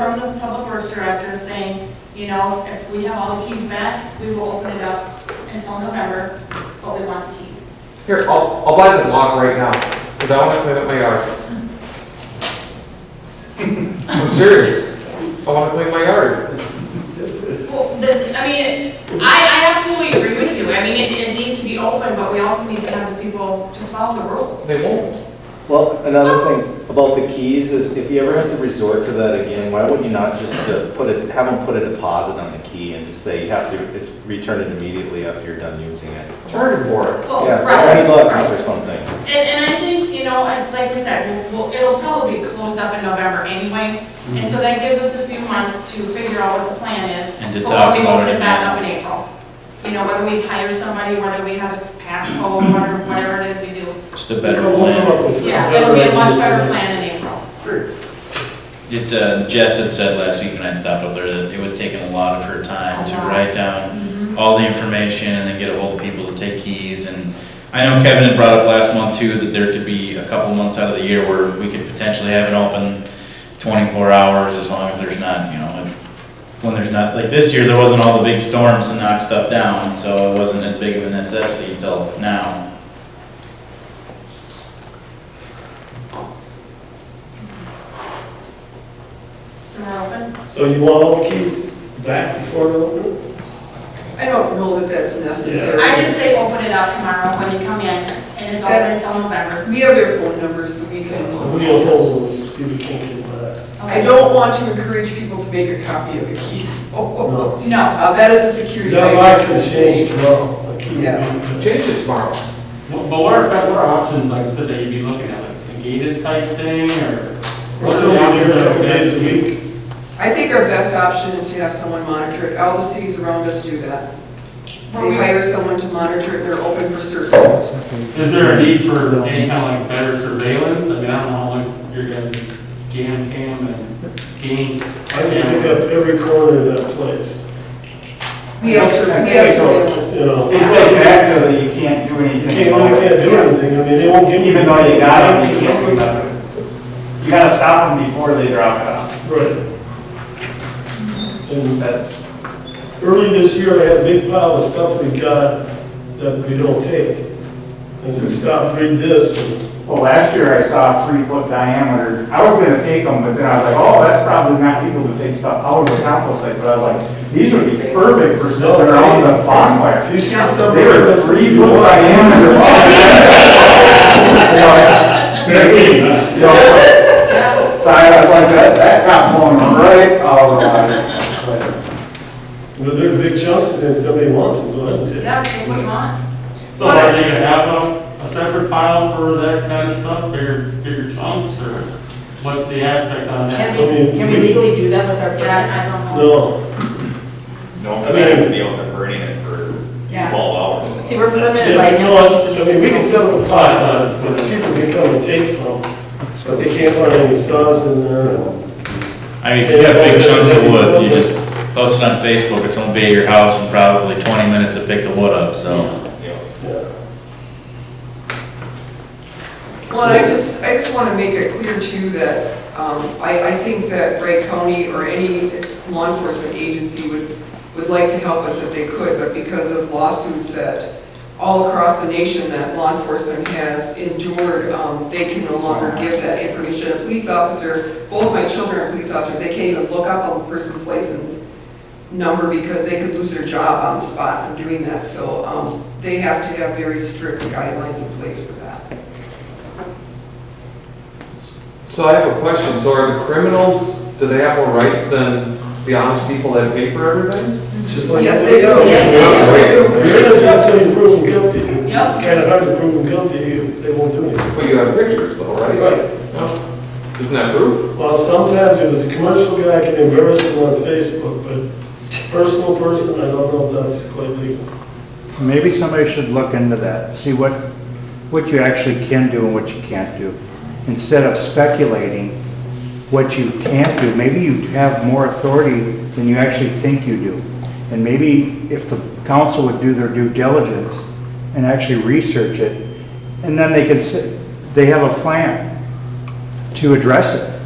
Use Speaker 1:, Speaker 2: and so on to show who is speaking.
Speaker 1: from the public works director saying, you know, if we have all the keys back, we will open it up until November, but we want the keys.
Speaker 2: Here, I'll, I'll buy the lock right now, because I want to clean up my yard. I'm serious. I want to clean my yard.
Speaker 1: Well, the, I mean, I, I absolutely agree with you. I mean, it, it needs to be open, but we also need to have the people just follow the rules.
Speaker 2: They won't.
Speaker 3: Well, another thing about the keys is if you ever have to resort to that again, why wouldn't you not just uh, put it, have them put a deposit on the key and just say you have to return it immediately after you're done using it?
Speaker 2: Charge them for it.
Speaker 1: Well,
Speaker 3: Yeah,
Speaker 1: Oh, right,
Speaker 3: twenty bucks
Speaker 1: right.
Speaker 3: or something.
Speaker 1: And, and I think, you know, I- like we said, we'll, it'll probably be closed up in November anyway. And so that gives us a few months to figure out what the plan is.
Speaker 4: Mm-hmm. And to
Speaker 1: for
Speaker 4: talk
Speaker 1: when we
Speaker 4: about
Speaker 1: open
Speaker 4: it.
Speaker 1: it back up in April. You know, whether we hire somebody, whether we have a passcode, whatever, whatever it is we do.
Speaker 4: Just a better plan.
Speaker 1: Yeah, it'll be a much better plan in April.
Speaker 4: It, uh, Jess had said last week when I stopped up there that it was taking a lot of her time to
Speaker 1: A lot.
Speaker 4: write down all the information and then get a hold of people to take keys and I know Kevin had brought up last month too, that there could be a couple months out of the year where we could potentially have it open twenty-four hours as long as there's not, you know, if- when there's not, like this year, there wasn't all the big storms to knock stuff down, so it wasn't as big of a necessity until now.
Speaker 1: So we're open.
Speaker 5: So you want all the keys back before the open?
Speaker 6: I don't know that that's necessary.
Speaker 1: I just say open it up tomorrow when you come in and it's open until November.
Speaker 6: We have their phone numbers, so we can.
Speaker 5: We don't know, we'll see if we can get that.
Speaker 6: I don't want to encourage people to make a copy of the key. Uh,
Speaker 5: No.
Speaker 1: No,
Speaker 6: that is a security.
Speaker 5: That
Speaker 6: measure.
Speaker 5: lock can change tomorrow. The key will be-
Speaker 2: Change it tomorrow.
Speaker 7: Well, But what are, what are options, like I said, that you'd be looking at, like a gated type thing, or?
Speaker 5: We're
Speaker 7: what are
Speaker 5: still
Speaker 7: the
Speaker 5: gonna be
Speaker 7: options
Speaker 5: there a
Speaker 7: that
Speaker 5: couple
Speaker 7: we have?
Speaker 5: days a week.
Speaker 6: I think our best option is to have someone monitor it. All the cities around us do that.
Speaker 1: Well,
Speaker 6: They
Speaker 1: we-
Speaker 6: hire someone to monitor it, and they're open for certain hours.
Speaker 7: Is there a need for any kind of like better surveillance? I mean, I don't know, like your guys' jam cam and game.
Speaker 5: I can pick up every corner of that place.
Speaker 6: We have, cer- we have
Speaker 5: You
Speaker 6: surveillance.
Speaker 5: know,
Speaker 8: They say back to that you can't do
Speaker 5: you
Speaker 8: anything.
Speaker 5: can't, I can't do anything, I mean, they won't give me.
Speaker 8: Even though you got it, you can't do nothing. You gotta stop them before they drop it off.
Speaker 5: Right. And
Speaker 8: That's,
Speaker 5: early this year, I had a big pile of stuff we got that we don't take. I said, stop, read this, and
Speaker 8: well, last year I saw three foot diameter. I was gonna take them, but then I was like, oh, that's probably not legal to take stuff out of the compost site. But I was like, these would be perfect for sitting around the bonfire.
Speaker 5: if you see stuff.
Speaker 8: They were three foot diameter. You know, you know,
Speaker 1: yeah,
Speaker 8: So I was like, that, that got blown right out of the water.
Speaker 5: But they're big chunks, and then somebody wants them, go ahead and take them.
Speaker 1: that's what we want.
Speaker 7: So are they gonna have a, a separate pile for that kind of stuff, bigger, bigger chunks, or what's the aspect on that?
Speaker 5: I mean,
Speaker 9: Can we legally do that with our permit?
Speaker 1: Yeah, I don't know.
Speaker 5: No,
Speaker 10: No,
Speaker 5: I
Speaker 10: but I
Speaker 5: mean-
Speaker 10: would be able to burn it for
Speaker 9: Yeah.
Speaker 10: twelve hours.
Speaker 9: See, we're permitted by
Speaker 5: yeah, you
Speaker 9: now.
Speaker 5: know, it's, I mean, we can sell them pies, uh, but people can come and take from, but they can't find any saws in there.
Speaker 4: I mean, if you have big chunks of wood, you just post it on Facebook, it's gonna be at your house in probably twenty minutes to pick the wood up, so.
Speaker 10: You know,
Speaker 5: Yeah.
Speaker 6: Well, and I just, I just want to make it clear too that um, I, I think that Wright County or any law enforcement agency would, would like to help us if they could, but because of lawsuits that all across the nation that law enforcement has endured, um, they can no longer give that information. A police officer, both my children are police officers, they can't even look up a person's license number because they could lose their job on the spot from doing that. So um, they have to have very strict guidelines in place for that.
Speaker 2: So I have a question. So are the criminals, do they have more rights than the honest people that pay for everything?
Speaker 5: Just like-
Speaker 6: Yes, they do.
Speaker 1: Yes,
Speaker 2: they do.
Speaker 5: You're innocent until you prove them guilty.
Speaker 1: Yep.
Speaker 5: It's Kind of hard to prove them guilty, you- they won't do anything.
Speaker 2: But you have pictures though, right?
Speaker 5: Right.
Speaker 2: No? Isn't that proof?
Speaker 5: Well, sometimes if it's a commercial guy, I can embarrass him on Facebook, but personal person, I don't know if that's quite legal.
Speaker 11: Maybe somebody should look into that, see what, what you actually can do and what you can't do. Instead of speculating what you can't do, maybe you have more authority than you actually think you do. And maybe if the council would do their due diligence and actually research it, and then they could, s- they have a plan to address it.